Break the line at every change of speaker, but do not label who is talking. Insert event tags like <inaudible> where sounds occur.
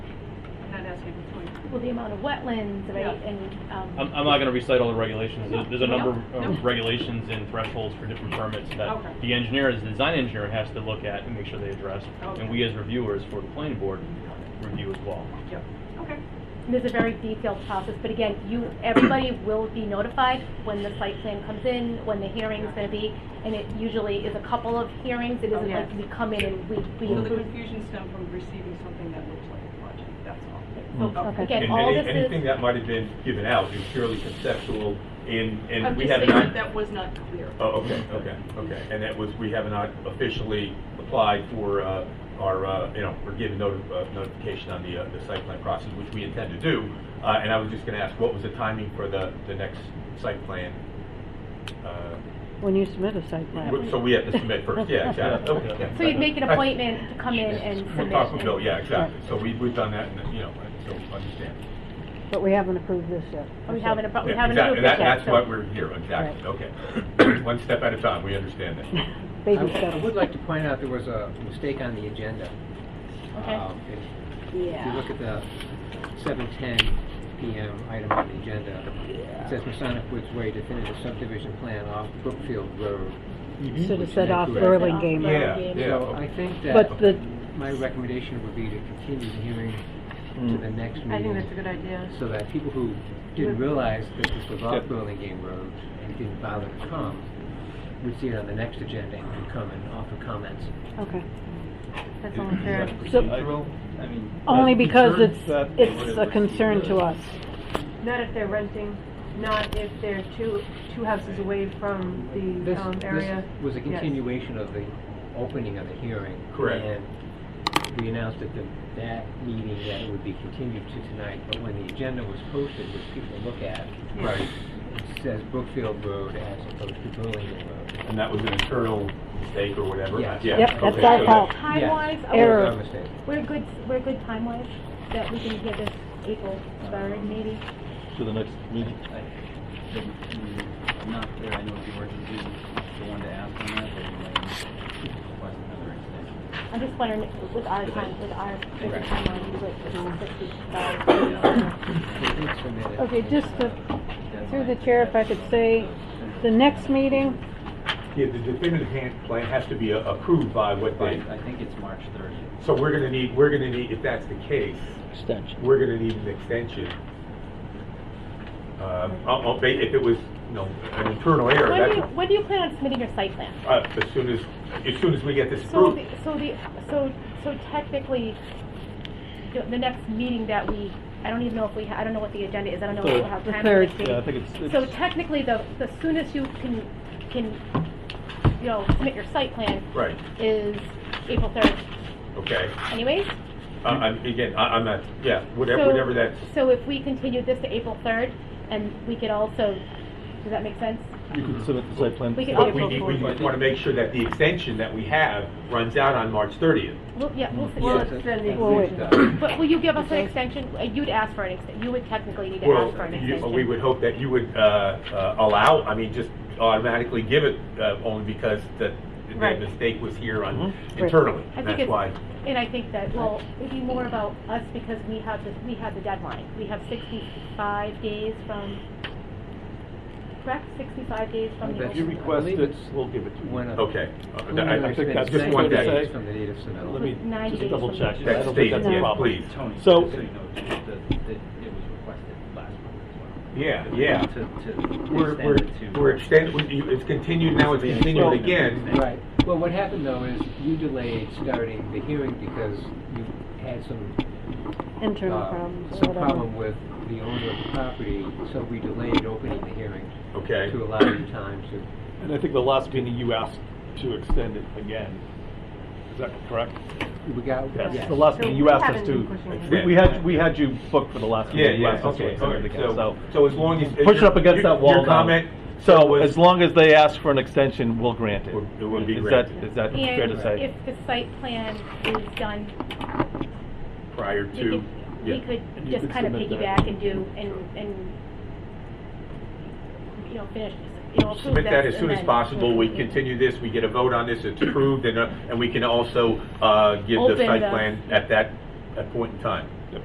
well, the amount of wetlands, right,
Yeah.
and, um.
I'm, I'm not gonna recite all the regulations, There- there's a
No,
number
no.
of regulations and thresholds for different permits
Okay.
that the engineer, as the design engineer, has to look at and make sure they address,
Okay.
and we as reviewers for the planning board review as well.
Yep, okay.
There's a very detailed process, but again, you, everybody will be notified when the site plan comes in, when the hearing's gonna be, and it usually is a couple of hearings, it
Oh,
isn't
yeah.
like we come in and we, we
So the
approve.
confusion stemmed from receiving something that looks like a project, that's all.
So,
Okay.
Again,
And
all
any,
this
anything
is,
that might have been given out is purely conceptual and,
I'm
and we
just
have
saying that
not.
that was not clear.
Oh, okay, okay, okay. And that was, we have not officially applied for, uh, our, uh, you know, or given noti- uh, notification on the, uh, the site plan process, which we intend to do. Uh, and I was just gonna ask, what was the timing for the, the next site plan? Uh,
When you submit a site plan.
wh- So we have to submit first,
<laughs>
yeah, exactly. Okay, yeah.
so you'd make an
Right.
appointment to come in and
We'll
submit.
talk with Bill, yeah, exactly. So we, we've done that, and, you know, so understand.
But we haven't approved this yet.
We haven't, appro- we
Yeah,
haven't
exactly.
approved it
That-
yet,
That's
so-
why we're here, exactly, okay. <clears throat> One step at a time, we understand
<laughs>
that.
Baby
I I would
steps.
like to point out there was a mistake on the agenda.
Okay.
Um, if- If you look at the 7:10 PM item on the agenda, it says Masonic Woods Way definitive subdivision plan off Brookfield Road.
Should have said off
Correct.
Berlin game.
Yeah,
Yeah.
So
yeah.
I think
But
that
the,
my recommendation would be to continue the hearing to the next meeting.
I think that's a good idea.
So that people who didn't realize that this was off Burlingame Road and didn't bother to come, would see it on the next agenda and could come and offer comments.
okay.
That's all I'm saying.
So,
I mean,
only because
concerns
it's,
that
it's a concern to us.
Not if they're renting, not if they're two, two houses away from the
This,
um,
this
area.
was a
Yes.
continuation of the opening of the hearing.
Correct.
And we announced at the, that meeting that it would be continued to tonight, but when the agenda was posted, which people look at,
Right,
it says Brookfield Road as opposed to Burlingame Road.
and that was an internal mistake or whatever?
Yeah.
Yeah,
Yep,
okay,
that's
so
our
that-
fault.
Time-wise,
Yes.
are we-
Error.
Our mistake.
we're good, we're good time-wise, that we can get this April third, maybe?
To the next meeting. I'm not there, I know if you were to be the one to ask on that, but you might request another extension.
I'm just wondering, with our time, with our, with the
Right.
timeline, with the six weeks,
They did submit it.
Okay, just to-
That's
through the
my-
chair, if I could say, the next meeting,
Yeah, the definitive hand plan has to be uh, approved by what
By,
they,
I think it's March thirtieth.
so we're gonna need, we're gonna need, if that's the case,
Extension.
we're gonna need an extension. Um, I'll- I'll ba- if it was, you know, an internal error,
When do you,
that's,
when do you plan on submitting your site plan?
uh, as soon as, as soon as we get this
So
approved.
the, so the, so, so technically, the, the next meeting that we, I don't even know if we, ha- I don't know what the agenda is, I don't know if we have
The
time.
third.
for this
Yeah, I
meeting.
think it's,
So
it's,
technically, the, the soonest you can, can, you know, submit your site plan
Right,
is April third
okay.
anyways.
Uh, I'm, again, I, I'm not, yeah, whatever,
So-
whatever that's,
So if we continue this to April third, and we could also, does that make sense?
you can submit the site plan.
We can-
But
April
we need, we
fourth.
want to make sure that the extension that we have runs out on March 30th.
We'll, yeah, we'll,
Well,
see.
it's been the
Well, wait.
extension.
but will you give us an extension? Uh, You'd ask for an extension, you would technically need to
Well,
ask for an
you-
extension.
we would hope that you would uh, uh, allow, I mean, just automatically give it, uh, only because the, the
Right.
mistake was here on
Mm-hmm.
internally.
I
and
think
That's
it's-
why,
And I think that, well, it'd be more about us because we have the, we have the deadline. We have sixty-five days from, correct, sixty-five days from the.
If
If you
opening.
request
I believe
it,
it's
we'll give it to you.
One of.
okay. Uh,
one
I-
of
I
those
think
been
that's just one
extended
day.
From the date of submittal.
Let me
Ninety
just
days
double
from
check.
now.
I don't
That's
think
stated,
that's a
yes,
problem.
please.
Tony,
So-
just so you know, that, that that it was requested last month as well.
Yeah, yeah.
To, to
We're,
extend
we're,
it to.
we're extending, it's continued now, it's continued again.
Right. Well, what happened though is you delayed starting the hearing because you had some
internal
uh,
problems or
some
whatever.
problem with the owner of the property, so we delayed opening the hearing
Okay,
to allow you time to.
And I think the last meeting you asked to extend it again. Is that correct?
We got,
Yes,
yes.
the last
So
meeting you
we
asked us
haven't
to.
been pushing it.
Yeah.
We, we had, we had you booked for the last
yeah,
meeting. you
yeah,
asked us to
okay, all
extend it
right,
again,
so, so as long as.
Push it up against
your-
that wall
Your
now.
comment,
So
was-
as long as they ask for an extension, we'll grant it.
Would- it would be
Is
granted.
that, is that fair
And
to say?
if the site plan is done,
prior
we
to,
could,
yeah.
we could
And you
just
could
kind of
submit that.
piggyback and do, and, and, you know, finish, you know, approve
Submit that
this
as soon
and
as
then-
possible, we continue this, we get a vote on this, it's approved, and, uh, and we can also, uh, give the
Open
site
the-
plan at that, at point in time.